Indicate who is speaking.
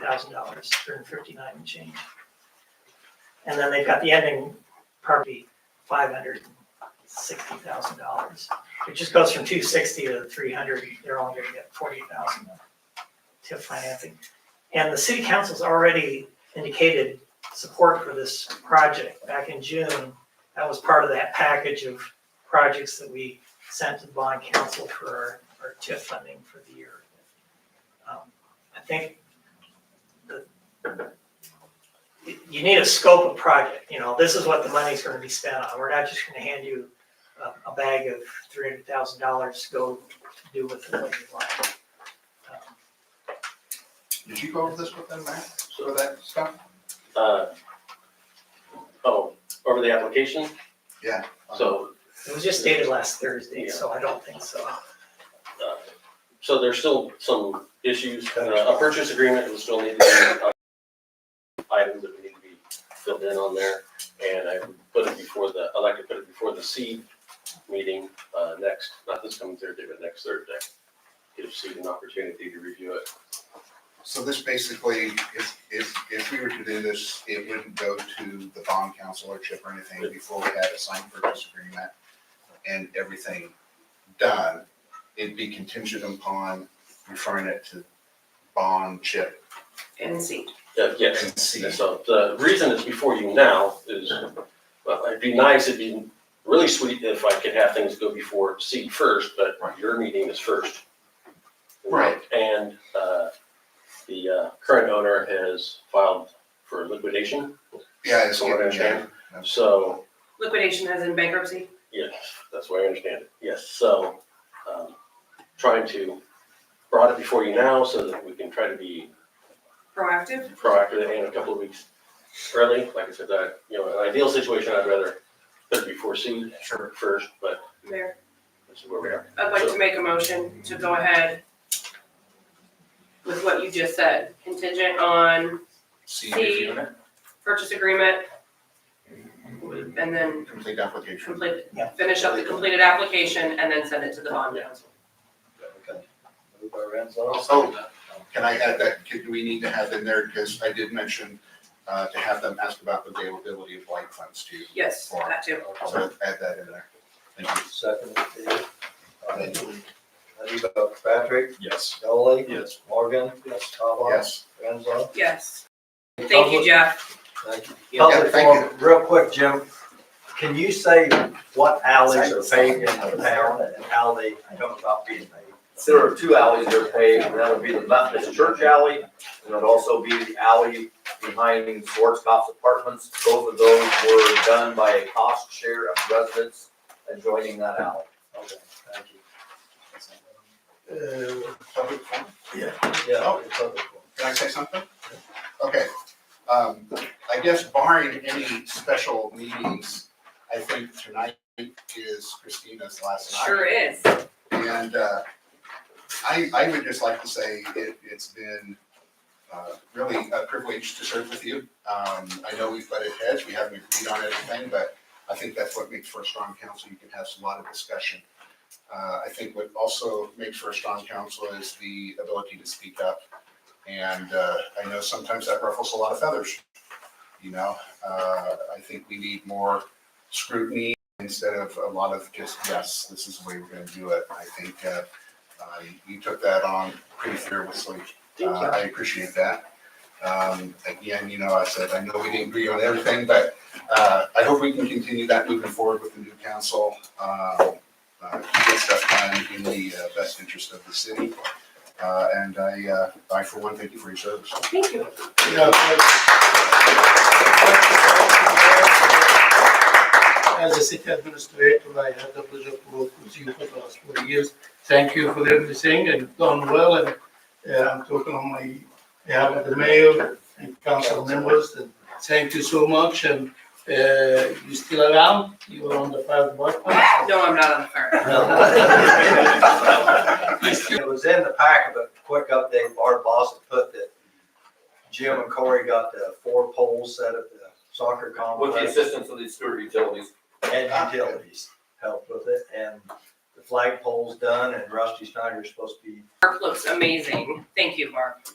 Speaker 1: thousand dollars, three hundred fifty-nine and change. And then they've got the ending property, five hundred sixty thousand dollars. It just goes from two sixty to three hundred, they're only gonna get forty thousand TIF financing. And the city council's already indicated support for this project back in June. That was part of that package of projects that we sent to the bond council for our, our TIF funding for the year. Um, I think the, you- you need a scope of project, you know, this is what the money's gonna be spent on. We're not just gonna hand you a, a bag of three hundred thousand dollars to go do with it what you like. Um,
Speaker 2: Did you go over this with them, Matt, some of that stuff?
Speaker 3: Uh, oh, over the application?
Speaker 2: Yeah.
Speaker 3: So,
Speaker 1: It was just dated last Thursday, so I don't think so.
Speaker 3: uh, so there's still some issues, Uh, a purchase agreement will still need to be, items that we need to be filled in on there, and I would put it before the, I like to put it before the seed meeting, uh, next, not this coming Thursday, but next Thursday. Give seed an opportunity to review it.
Speaker 2: So this basically, if, if, if we were to do this, it wouldn't go to the bond council or chip or anything before we had a signed purchase agreement and everything done. It'd be contingent upon referring it to bond, chip,
Speaker 4: and seat.
Speaker 3: Uh, yes.
Speaker 2: and see.
Speaker 3: And so the reason it's before you now is, well, it'd be nice, it'd be really sweet if I could have things go before seed first, but
Speaker 2: Right.
Speaker 3: your meeting is first.
Speaker 2: Right.
Speaker 3: And, uh, the, uh, current owner has filed for liquidation,
Speaker 2: Yeah, it's
Speaker 3: so what I
Speaker 2: getting, yeah,
Speaker 3: understand. So,
Speaker 4: Liquidation as in bankruptcy?
Speaker 3: yes, that's what I understand it, yes, so, um, trying to brought it before you now so that we can try to be
Speaker 4: Proactive?
Speaker 3: proactive and a couple of weeks early. Like I said, that, you know, an ideal situation, I'd rather put it before seed
Speaker 2: sure.
Speaker 3: first, but
Speaker 4: Mayor,
Speaker 3: this is where we are.
Speaker 4: I'd like to make a motion to go ahead with what you just said, contingent on
Speaker 2: See reviewing it,
Speaker 4: purchase agreement and then
Speaker 2: complete application.
Speaker 4: complete,
Speaker 1: Yeah.
Speaker 4: finish up the completed application and then send it to the bond council.
Speaker 5: Okay. Moved by Renzo.
Speaker 2: Oh, Can I add that, could, do we need to have in there, because I did mention, uh, to have them ask about the availability of light funds too.
Speaker 4: Yes, that too.
Speaker 2: So add that in there. Thank you.
Speaker 5: Second, Dave. All right. How do you vote? Patrick?
Speaker 2: Yes.
Speaker 5: Dolly?
Speaker 2: Yes.
Speaker 5: Morgan? Yes. Kavah?
Speaker 2: Yes.
Speaker 5: Renzo?
Speaker 4: Yes. Thank you, Jeff.
Speaker 5: Thank you.
Speaker 2: Yeah, thank
Speaker 6: Public forum, real quick, Jim, can you say what alleys are paved in the town and how they come about being paved?
Speaker 7: There are two alleys that are paved, and that would be the Methodist Church Alley, and it'd also be the alley behind Schwarzkopf Apartments. Both of those were done by a cost share of residents adjoining that alley.
Speaker 5: Okay, thank you.
Speaker 2: Public forum?
Speaker 5: Yeah. it's public forum.
Speaker 2: Can I say something? Okay, um, I guess barring any special meetings, I think tonight is Christina's last night.
Speaker 4: Sure is.
Speaker 2: And uh, I, I would just like to say it, it's been uh, really a privilege to serve with you. Um, I know we've butted heads, we haven't agreed on everything, but I think that's what makes for a strong council. You can have a lot of discussion. Uh, I think what also makes for a strong council is the ability to speak up. And uh, I know sometimes that ruffles a lot of feathers, you know? Uh, I think we need more scrutiny instead of a lot of just, yes, this is the way we're gonna do it. I think, uh, uh, you took that on pretty fearlessly. Uh, I appreciate that. Um, again, you know, I said, I know we didn't agree on everything, but, uh, I hope we can continue that moving forward with the new council. Uh, uh, to get stuff done in the uh, best interest of the city. Uh, and I, uh, I for one, thank you for your service.
Speaker 4: Thank you.
Speaker 8: As a city administrator, I had the pleasure to work with you for the last four years. Thank you for everything and you've done well and uh, I'm talking on my behalf of the mayor and council members. and Thank you so much and uh, you still around? You are on the fire department?
Speaker 4: No, I'm not on the fire.
Speaker 6: It was in the packet, but quick update, Bart Boston put that Jim and Corey got the four poles set at the soccer
Speaker 7: With the
Speaker 6: complex
Speaker 7: assistance of the Stewart Utilities.
Speaker 6: and utilities helped with it. And the flag pole's done and Rusty Snyder's supposed to be
Speaker 4: Mark looks amazing. Thank you, Mark.